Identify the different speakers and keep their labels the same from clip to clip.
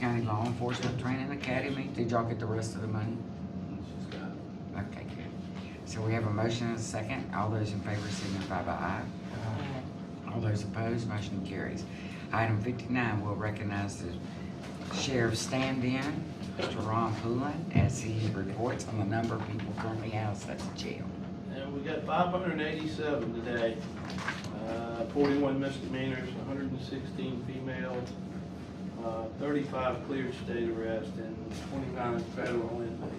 Speaker 1: County Law Enforcement Training Academy. Did y'all get the rest of the money?
Speaker 2: She's got it.
Speaker 1: Okay, good. So we have a motion and a second. All those in favor signify by aye. All those opposed, motion carries. Item fifty-nine, we'll recognize the sheriff stand-in, Mr. Ron Poulin, as he reports on the number of people currently housed at the jail.
Speaker 2: And we got five hundred and eighty-seven today, uh, forty-one misdemeanors, hundred and sixteen female, uh, thirty-five cleared state arrest, and twenty-nine federal inmates.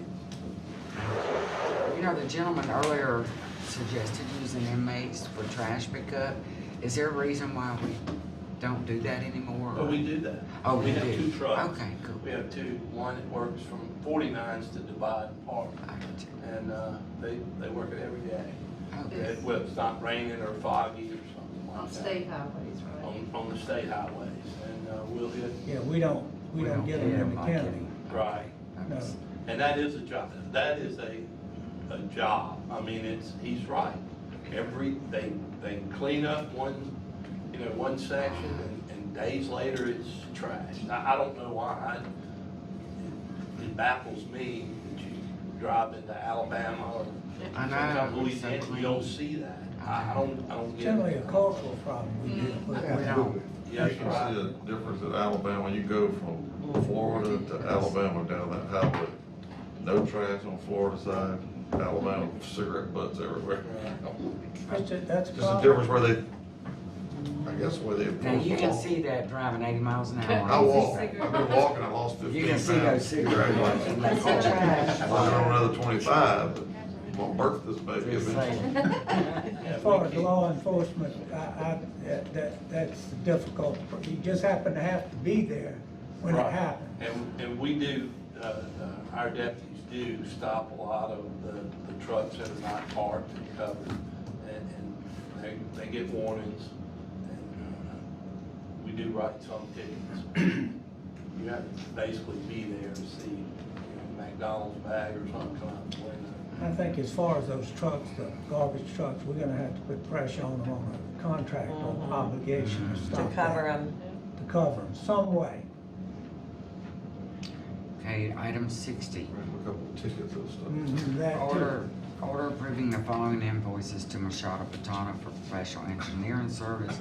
Speaker 1: You know, the gentleman earlier suggested using inmates for trash pickup. Is there a reason why we don't do that anymore?
Speaker 2: But we do that.
Speaker 1: Oh, we
Speaker 2: have
Speaker 1: do.
Speaker 2: two trucks.
Speaker 1: Okay, cool.
Speaker 2: We have two, one that works from forty-nines to Divide Park,
Speaker 1: I got you.
Speaker 2: and, uh, they, they work it every day.
Speaker 1: Okay.
Speaker 2: It- Well, it's not raining or foggy or something like that.
Speaker 3: On state highways, right?
Speaker 2: On, on the state highways, and, uh, we'll hit,
Speaker 4: Yeah, we don't, we don't get them in the
Speaker 1: like
Speaker 4: county.
Speaker 1: it.
Speaker 2: right.
Speaker 1: Okay.
Speaker 4: No.
Speaker 2: And that is a job, that is a, a job, I mean, it's, he's right. Every, they, they clean up one, you know, one section, and, and days later, it's trash. I, I don't know why, I, it baffles me that you drive into Alabama or
Speaker 1: I know,
Speaker 2: sometimes
Speaker 1: it's so
Speaker 2: Louisiana, you
Speaker 1: clean.
Speaker 2: don't see that. I, I don't, I don't get it.
Speaker 4: Generally a cultural problem we do.
Speaker 1: We
Speaker 4: but-
Speaker 1: don't.
Speaker 5: You
Speaker 2: Yes,
Speaker 5: can see
Speaker 2: right.
Speaker 5: the difference in Alabama, you go from Florida to Alabama down that highway. No trash on Florida side, Alabama cigarette butts everywhere.
Speaker 2: uh,
Speaker 4: That's a, that's a
Speaker 5: Just the
Speaker 4: problem.
Speaker 5: difference where they, I guess where they
Speaker 1: Now,
Speaker 5: enforce
Speaker 1: you
Speaker 5: the
Speaker 1: can
Speaker 5: law.
Speaker 1: see that driving eighty miles an hour.
Speaker 5: I walk, I've
Speaker 3: cigarette
Speaker 5: been walking, I lost fifteen pounds.
Speaker 1: You can see those cigarette
Speaker 5: Right.
Speaker 1: butts.
Speaker 3: That's all right.
Speaker 5: I'm on another twenty-five, but I'm gonna birth this baby
Speaker 1: Just
Speaker 5: eventually.
Speaker 1: saying.
Speaker 4: As far as law enforcement, I, I, that- that, that's difficult. You just happen to have to be there when it
Speaker 2: Right.
Speaker 4: happens.
Speaker 2: And, and we do, uh, uh, our deputies do stop a lot of the, the trucks that are not parked and covered, and, and they, they get warnings, and, uh, we do write some tickets. You have to basically be there to see, you know, McDonald's bag or something come out the window.
Speaker 4: I think as far as those trucks, the garbage trucks, we're gonna have to put pressure on them on a contract or obligation to
Speaker 6: Mm-hmm. to
Speaker 4: stop that.
Speaker 6: cover them.
Speaker 4: To cover them, some way.
Speaker 1: Okay, item sixty.
Speaker 5: A couple of tickets and stuff.
Speaker 4: Mhm, That too.
Speaker 1: Order, order approving the following invoices to Machado Patana for professional engineering service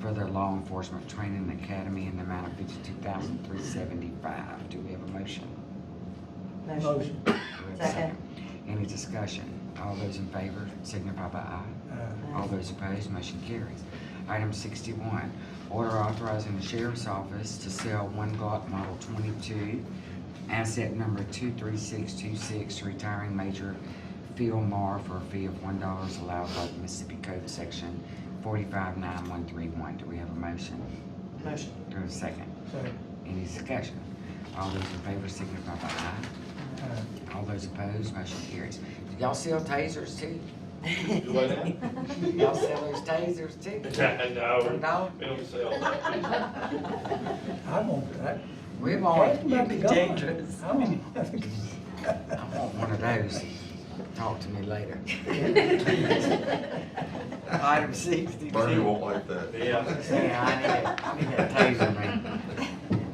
Speaker 1: for their law enforcement training academy in the amount of fifty-two thousand three seventy-five. Do we have a motion?
Speaker 4: Motion.
Speaker 1: Do we have a
Speaker 6: Second.
Speaker 1: Any discussion? All those in favor signify by aye.
Speaker 4: Uh,
Speaker 1: All those opposed, motion carries. Item sixty-one, order authorizing the sheriff's office to sell one Glock Model twenty-two, asset number two-three-six-two-six, retiring Major Phil Marr for a fee of one dollar allowed by the Mississippi Code Section forty-five nine one three one. Do we have a motion?
Speaker 6: Motion.
Speaker 1: Do we have a second?
Speaker 4: so,
Speaker 1: Any discussion? All those in favor signify by aye.
Speaker 4: uh,
Speaker 1: All those opposed, motion carries. Do y'all sell tasers too? Y'all sell those tasers too? No?
Speaker 2: we don't sell.
Speaker 4: I want that.
Speaker 1: We've already,
Speaker 4: That's about the
Speaker 6: be
Speaker 4: gun.
Speaker 6: dangerous.
Speaker 4: I want that to go.
Speaker 1: I want one of those. Talk to me later. Item
Speaker 5: Bernie
Speaker 1: sixty-two.
Speaker 5: won't like that.
Speaker 2: Yeah.
Speaker 1: Yeah, I need that, I need that taser, man.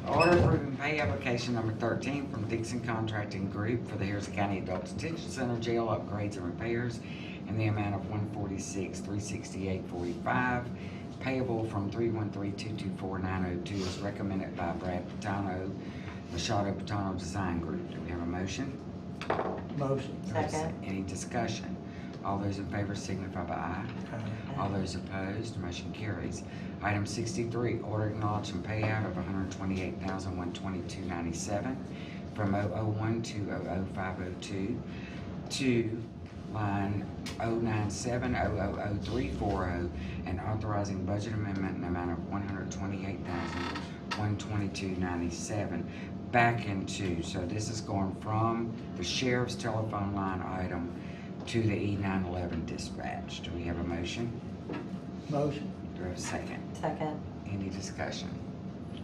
Speaker 1: Order approving pay application number thirteen from Dixon Contracting Group for the Harrison County Adult Detention Center Jail upgrades and repairs in the amount of one forty-six, three sixty-eight, forty-five, payable from three-one-three-two-two-four-nine-oh-two as oh recommended by Brad Patano, Machado Patano Design Group. Do we have a motion?
Speaker 4: Motion.
Speaker 6: Second.
Speaker 1: Any discussion? All those in favor signify by aye.
Speaker 4: Uh,
Speaker 1: All those opposed, motion carries. Item sixty-three, order acknowledging payout of one hundred twenty-eight thousand one twenty-two ninety-seven from 001 to 00502 to line 097 0003400 and authorizing budget amendment in the amount of one hundred twenty-eight thousand one twenty-two ninety-seven back into, so this is going from the sheriff's telephone line item to the E nine eleven dispatch. Do we have a motion?
Speaker 4: Motion.
Speaker 1: Do we have a second?
Speaker 6: Second.
Speaker 1: Any discussion?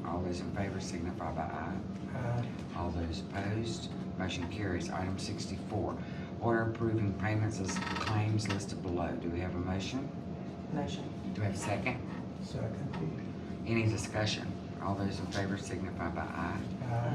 Speaker 1: All those in favor signify by aye.
Speaker 4: Uh,
Speaker 1: All those opposed, motion carries. Item sixty-four, order approving payments as claims listed below. Do we have a motion?
Speaker 6: Motion.
Speaker 1: Do we have a second?
Speaker 4: Second.
Speaker 1: Any discussion? All those in favor signify by aye.
Speaker 4: Uh,